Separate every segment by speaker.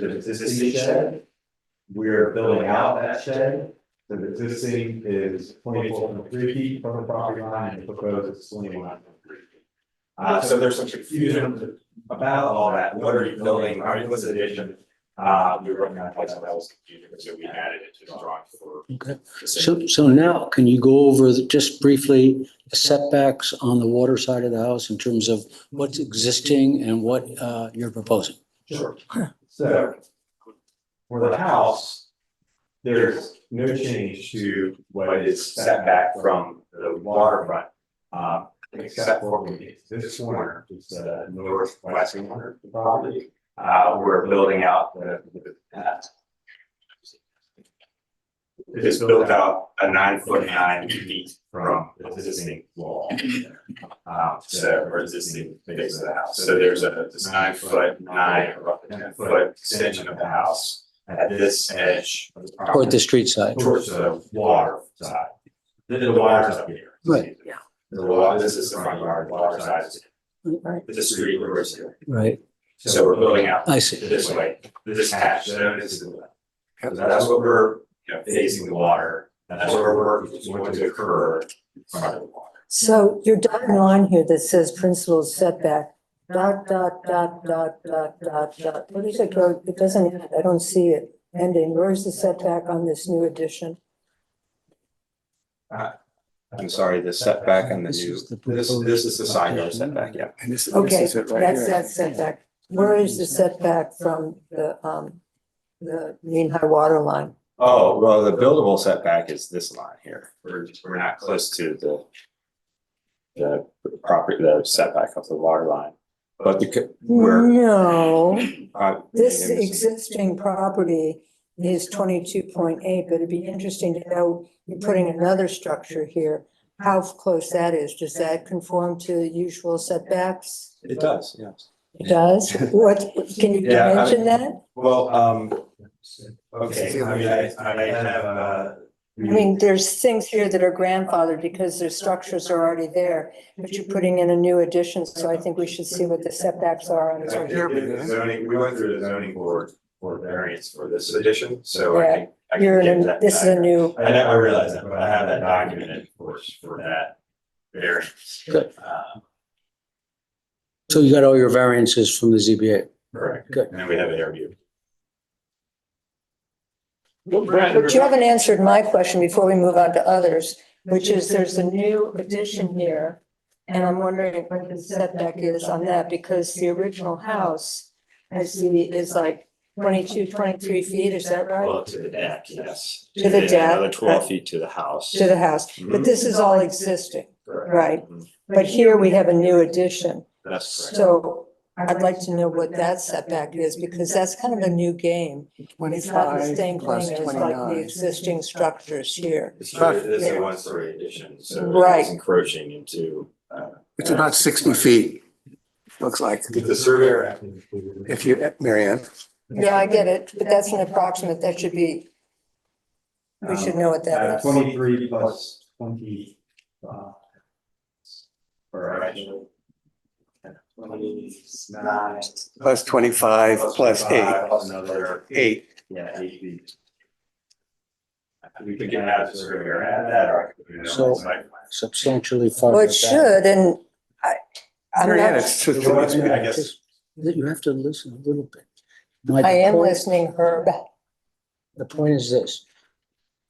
Speaker 1: There's an existing shed. We're building out that shed. So The existing is twenty-four point three feet from the property line and proposed is twenty-one point three feet. Uh, so there's some confusion about all that. What are you building? Are you this addition? Uh, we were working on a place that was confusing, so we added it to the drawing for.
Speaker 2: Okay, so, so now can you go over the- just briefly the setbacks on the water side of the house in terms of what's existing and what uh, you're proposing?
Speaker 1: Sure. So. For the house. There's no change to what is set back from the waterfront. Uh, except for maybe this corner, it's the northwest corner of the property. Uh, we're building out the, the, uh, It's built out a nine foot nine feet from the existing wall. Um, so, or existing base of the house, so there's a, this nine foot, nine, or roughly ten foot extension of the house. At this edge of the property.
Speaker 2: Or the street side?
Speaker 1: Towards the water side. The, the water's up here.
Speaker 2: Right,
Speaker 1: yeah. The water, this is the front yard, water side, is- the street reverse here,
Speaker 2: Right,
Speaker 1: so we're building out
Speaker 2: I see.
Speaker 1: this way, this hatch, so this is the left. So that's what we're, you know, facing the water, and that's where we're going to occur in front of the water.
Speaker 3: So your dotted line here that says principal setback, dot, dot, dot, dot, dot, dot, dot. What is it, go- it doesn't, end. I don't see it ending. Where's the setback on this new addition?
Speaker 4: I'm sorry, the setback and the
Speaker 2: This
Speaker 4: new,
Speaker 2: is the
Speaker 4: this,
Speaker 2: proposed
Speaker 4: this is the side yard
Speaker 2: addition.
Speaker 4: setback, yeah.
Speaker 5: And this, this
Speaker 3: Okay,
Speaker 5: is it right
Speaker 3: that's
Speaker 5: here.
Speaker 3: that setback. Where is the setback from the, um, the mean high water line?
Speaker 4: Oh, well, the buildable setback is this line here. We're, we're not close to the the property, the setback of the water line, but the, co- we're.
Speaker 3: No,
Speaker 4: uh,
Speaker 3: this
Speaker 4: it was-
Speaker 3: existing property is twenty-two point eight, but it'd be interesting to know, you're putting another structure here. How close that is. Does that conform to usual setbacks?
Speaker 4: It does, yes.
Speaker 3: It does? What, can you
Speaker 4: Yeah, I
Speaker 3: mention
Speaker 4: mean-
Speaker 3: that?
Speaker 4: Well, um,
Speaker 1: Okay, I mean, I, I have, uh.
Speaker 3: I mean, there's things here that are grandfathered because their structures are already there, but you're putting in a new addition, so I think we should see what the setbacks are on
Speaker 1: I
Speaker 3: it.
Speaker 5: here we
Speaker 1: did
Speaker 5: go.
Speaker 1: the Zoning, we went through the zoning board for variance for this edition, so I can. I can
Speaker 3: You're
Speaker 1: give
Speaker 3: in, a-
Speaker 1: that
Speaker 3: this is
Speaker 1: back.
Speaker 3: a new,
Speaker 1: I know, I realize that, but I have that documented, of course, for that variance.
Speaker 2: Good.
Speaker 1: Uh,
Speaker 2: So you got all your variances from the ZBA?
Speaker 1: Correct.
Speaker 2: Good.
Speaker 1: And then we have an interview.
Speaker 3: but you haven't answered my question before we move on to others, which is there's a new addition here. And I'm wondering what the setback is on that, because the original house, I see, is like 22, 23 feet, is that right?
Speaker 1: Well, to the deck, yes.
Speaker 3: To the deck.
Speaker 4: another twelve feet to the house.
Speaker 3: To the house, but
Speaker 1: Mhm.
Speaker 3: this is all existing,
Speaker 1: Correct.
Speaker 3: right?
Speaker 1: Mhm.
Speaker 3: But here we have a new addition.
Speaker 1: That's correct.
Speaker 3: So I'd like to know what that setback is, because that's kind of a new game. It's not the
Speaker 5: Twenty-five
Speaker 3: same thing
Speaker 5: plus
Speaker 3: as like the
Speaker 5: twenty-nine.
Speaker 3: existing structures here.
Speaker 1: It's true, it is a one story addition, so
Speaker 3: Right.
Speaker 1: it's encroaching into, uh.
Speaker 5: It's about sixty feet, looks like.
Speaker 1: If the surveyor.
Speaker 5: If you, Mary Ann,
Speaker 3: Yeah, I get it, but that's an approximate, that should be, we should know what
Speaker 1: Uh,
Speaker 3: that is.
Speaker 1: Twenty-three plus twenty. uh, All right. Twenty-nine.
Speaker 5: plus twenty-five, plus eight,
Speaker 1: Plus another,
Speaker 5: eight.
Speaker 1: yeah, eight feet. We could get out of the surveyor at that, or. I could do it on
Speaker 2: So-
Speaker 1: the site plan.
Speaker 2: Substantially farther
Speaker 3: Well, it
Speaker 2: back.
Speaker 3: should, and I, I'm
Speaker 5: Mary Ann,
Speaker 3: not,
Speaker 5: it's just-
Speaker 1: So what's- I guess,
Speaker 2: Just that You have to listen a little bit. My
Speaker 3: I am
Speaker 2: point-
Speaker 3: listening, Herb.
Speaker 2: The point is this.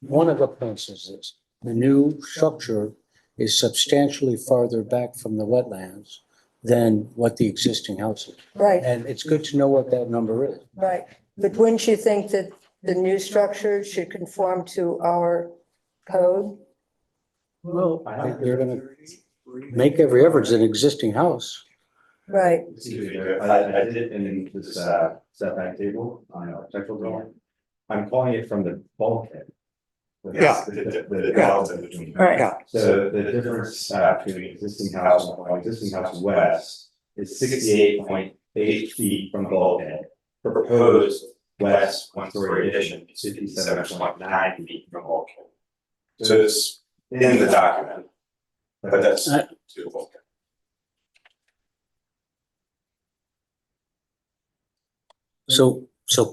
Speaker 2: One of the points is this, the new structure is substantially farther back from the wetlands than what the existing house is.
Speaker 3: Right,
Speaker 2: And it's good to know what that number is.
Speaker 3: right. But wouldn't you think that the new structure should conform to our code?
Speaker 2: Well. They're gonna make every effort, it's an existing house.
Speaker 3: Right,
Speaker 1: excuse me, I, I did in this, uh, setback table on our architectural drawing. I'm calling it from the bulkhead.
Speaker 5: Yeah.
Speaker 1: The, the, the delta between.
Speaker 3: right.
Speaker 1: So the difference uh, between existing house, and existing house west is sixty-eight point eight feet from the bulkhead. The Proposed west one-story addition is fifty-seven point nine feet from bulkhead. So it's in the document, but that's to the bulkhead.
Speaker 2: So, so